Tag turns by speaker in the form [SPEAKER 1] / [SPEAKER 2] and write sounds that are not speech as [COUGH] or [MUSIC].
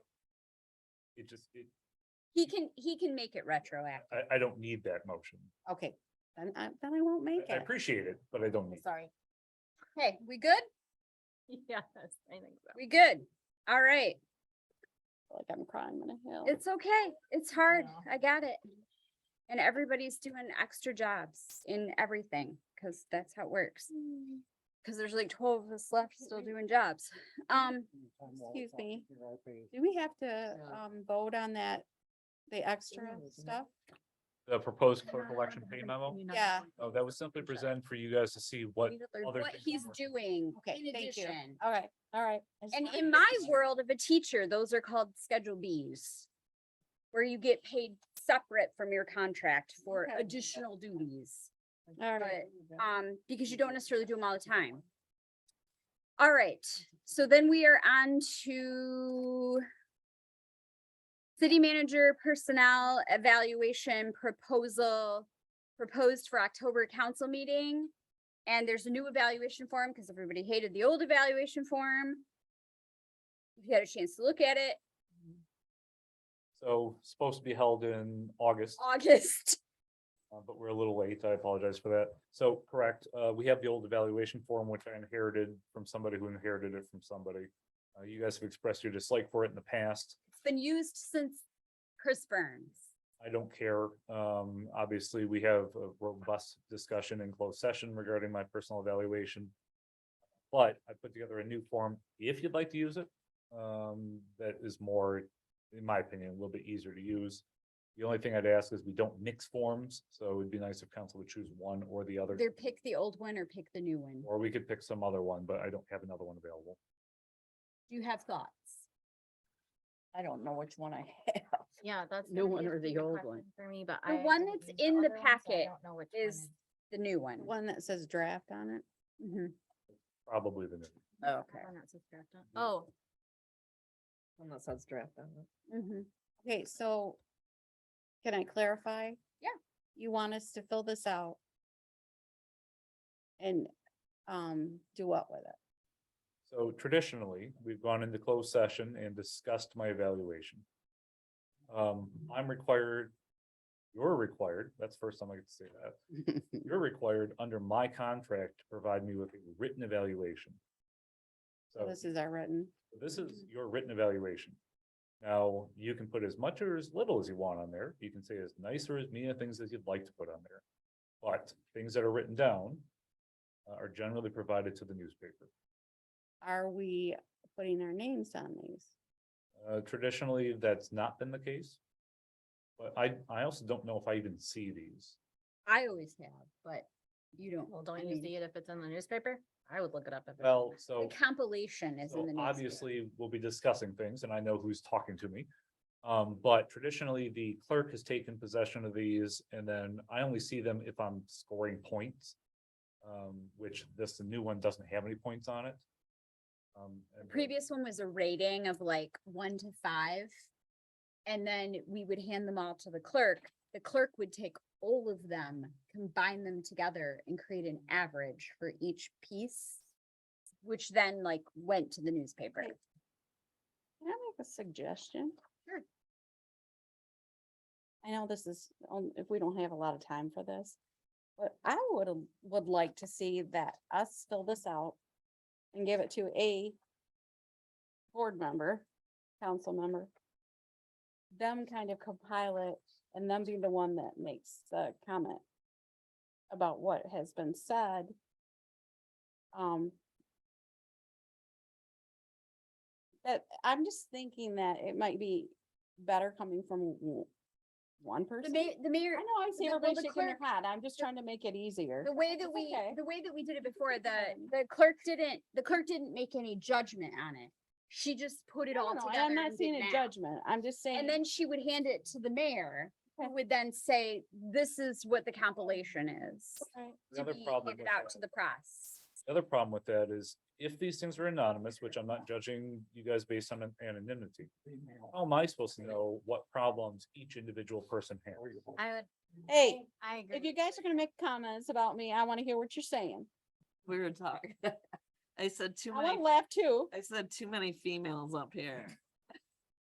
[SPEAKER 1] it just, it,
[SPEAKER 2] He can, he can make it retroactive.
[SPEAKER 1] I, I don't need that motion.
[SPEAKER 2] Okay, then I, then I won't make
[SPEAKER 1] I- I
[SPEAKER 2] it.
[SPEAKER 1] appreciate it, but I don't need. it.
[SPEAKER 2] Sorry. Okay, we
[SPEAKER 3] [LAUGHS]
[SPEAKER 2] good?
[SPEAKER 4] Yes, I think so.
[SPEAKER 2] We good? All right.
[SPEAKER 4] Like I'm crying on a hill.
[SPEAKER 2] It's okay. It's hard.
[SPEAKER 4] know.
[SPEAKER 2] I got it. And everybody's doing extra jobs in everything, cause that's how it works.
[SPEAKER 3] Mm.
[SPEAKER 2] Cause there's like twelve of us left still doing jobs. Um,
[SPEAKER 3] Excuse me. Do we have to, um, vote on that, the extra stuff?
[SPEAKER 1] The proposed clerk election pay memo,
[SPEAKER 3] Yeah.
[SPEAKER 1] oh, that was simply presented for you guys to see what, other
[SPEAKER 2] what
[SPEAKER 1] things
[SPEAKER 2] he's
[SPEAKER 1] work.
[SPEAKER 2] doing.
[SPEAKER 3] Okay,
[SPEAKER 2] in
[SPEAKER 3] thank you.
[SPEAKER 2] addition.
[SPEAKER 3] All right, all right. I just
[SPEAKER 2] And
[SPEAKER 3] wanted
[SPEAKER 2] in
[SPEAKER 3] to-
[SPEAKER 2] my world of a teacher, those are called Schedule Bs. Where you get paid separate from your contract for
[SPEAKER 3] Okay.
[SPEAKER 2] additional duties.
[SPEAKER 3] All right.
[SPEAKER 2] um, because you don't necessarily do them all the time. All right, so then we are on to city manager personnel evaluation proposal proposed for October council meeting. And there's a new evaluation form because everybody hated the old evaluation form. If you had a chance to look at it, [LAUGHS]
[SPEAKER 1] so supposed to be held in August.
[SPEAKER 2] August,
[SPEAKER 1] Uh, but we're a little late. I apologize for that. So correct, uh, we have the old evaluation form, which I inherited from somebody who inherited it from somebody. Uh, you guys have expressed your dislike for it in the past.
[SPEAKER 2] it's been used since Chris Burns.
[SPEAKER 1] I don't care. Um, obviously, we have a robust discussion in closed session regarding my personal evaluation. But I put together a new form, if you'd like to use it, um, that is more, in my opinion, a little bit easier to use. The only thing I'd ask is we don't mix forms, so it'd be nice if council would choose one or the other.
[SPEAKER 2] Either pick the old one or pick the new one.
[SPEAKER 1] Or we could pick some other one, but I don't have another one available.
[SPEAKER 2] Do you have thoughts?
[SPEAKER 3] I don't know which one I have.
[SPEAKER 4] Yeah, that's.
[SPEAKER 3] New
[SPEAKER 4] gonna be
[SPEAKER 3] one
[SPEAKER 4] a
[SPEAKER 3] or the
[SPEAKER 4] bigger
[SPEAKER 3] old
[SPEAKER 4] question
[SPEAKER 3] one?
[SPEAKER 4] For me, but
[SPEAKER 2] The
[SPEAKER 4] I.
[SPEAKER 2] one
[SPEAKER 4] haven't
[SPEAKER 2] that's
[SPEAKER 4] used
[SPEAKER 2] in the
[SPEAKER 4] other one, so I
[SPEAKER 2] packet
[SPEAKER 4] don't know which one
[SPEAKER 2] Is the new one?
[SPEAKER 3] One that says draft on it?
[SPEAKER 2] Mhm.
[SPEAKER 1] Probably the new.
[SPEAKER 3] Okay.
[SPEAKER 4] I'm not so sure. Oh,
[SPEAKER 5] One that says draft on it.
[SPEAKER 2] Mhm.
[SPEAKER 3] Okay, so can I clarify?
[SPEAKER 2] Yeah.
[SPEAKER 3] You want us to fill this out? And, um, do what with it?
[SPEAKER 1] So traditionally, we've gone into closed session and discussed my evaluation. Um, I'm required, you're required, that's the first time I get to say that. You're required under my contract to provide me with a written evaluation. [LAUGHS]
[SPEAKER 3] So
[SPEAKER 1] So
[SPEAKER 3] This is our written.
[SPEAKER 1] this is your written evaluation. Now, you can put as much or as little as you want on there. You can say as nice or as mean things as you'd like to put on there. But things that are written down uh, are generally provided to the newspaper.
[SPEAKER 3] Are we putting our names on these?
[SPEAKER 1] Uh, traditionally, that's not been the case. But I, I also don't know if I even see these.
[SPEAKER 2] I always have, but you don't. uh,
[SPEAKER 4] well,
[SPEAKER 2] I
[SPEAKER 4] don't you
[SPEAKER 2] mean,
[SPEAKER 4] see it if it's in the newspaper? I would look it up. if it's in
[SPEAKER 1] Well,
[SPEAKER 4] there.
[SPEAKER 1] so.
[SPEAKER 2] The compilation is
[SPEAKER 1] So
[SPEAKER 2] in the. newspaper.
[SPEAKER 1] obviously, we'll be discussing things and I know who's talking to me. Um, but traditionally, the clerk has taken possession of these and then I only see them if I'm scoring points. Um, which this, the new one doesn't have any points on it. Um, and
[SPEAKER 2] The
[SPEAKER 1] then-
[SPEAKER 2] Previous one was a rating of like one to five. And then we would hand them all to the clerk. The clerk would take all of them, combine them together and create an average for each piece. Which then like went to the newspaper.
[SPEAKER 3] Right. Can I make a suggestion?
[SPEAKER 2] Sure.
[SPEAKER 3] I know this is, on- if we don't have a lot of time for this, but I would, l- would like to see that us fill this out and give it to a board member, council member. Them kind of compile it and them be the one that makes the comment about what has been said. Um, that I'm just thinking that it might be better coming from w- one
[SPEAKER 2] The
[SPEAKER 3] person.
[SPEAKER 2] ma- the
[SPEAKER 3] I
[SPEAKER 2] mayor.
[SPEAKER 3] know, I see
[SPEAKER 2] the- well,
[SPEAKER 3] everybody
[SPEAKER 2] the
[SPEAKER 3] shaking their
[SPEAKER 2] clerk-
[SPEAKER 3] head. I'm just trying to make it easier.
[SPEAKER 2] The way that
[SPEAKER 3] It's
[SPEAKER 2] we,
[SPEAKER 3] okay.
[SPEAKER 2] the way that we did it before,
[SPEAKER 3] It's
[SPEAKER 2] the,
[SPEAKER 3] fine.
[SPEAKER 2] the clerk didn't, the clerk didn't make any judgment on it. She just put it
[SPEAKER 3] No,
[SPEAKER 2] all
[SPEAKER 3] no,
[SPEAKER 2] together.
[SPEAKER 3] and I'm not
[SPEAKER 2] and did
[SPEAKER 3] seeing a
[SPEAKER 2] math.
[SPEAKER 3] judgment. I'm just saying.
[SPEAKER 2] And then she would hand it to the mayor, who
[SPEAKER 3] Okay.
[SPEAKER 2] would then say, this is what the compilation is.
[SPEAKER 3] Right.
[SPEAKER 1] The
[SPEAKER 2] To
[SPEAKER 1] other
[SPEAKER 2] be
[SPEAKER 1] problem
[SPEAKER 2] handed
[SPEAKER 1] with
[SPEAKER 2] out
[SPEAKER 1] that-
[SPEAKER 2] to the press.
[SPEAKER 1] The other problem with that is if these things are anonymous, which I'm not judging you guys based on an- anonymity. How am I supposed to know what problems each individual person has?
[SPEAKER 4] I would.
[SPEAKER 3] Hey,
[SPEAKER 4] I agree.
[SPEAKER 3] if you guys are gonna make comments about me, I wanna hear what you're saying.
[SPEAKER 5] We were talking. [LAUGHS] I said too
[SPEAKER 3] I
[SPEAKER 5] many,
[SPEAKER 3] wanna laugh too.
[SPEAKER 5] I said too many females up here.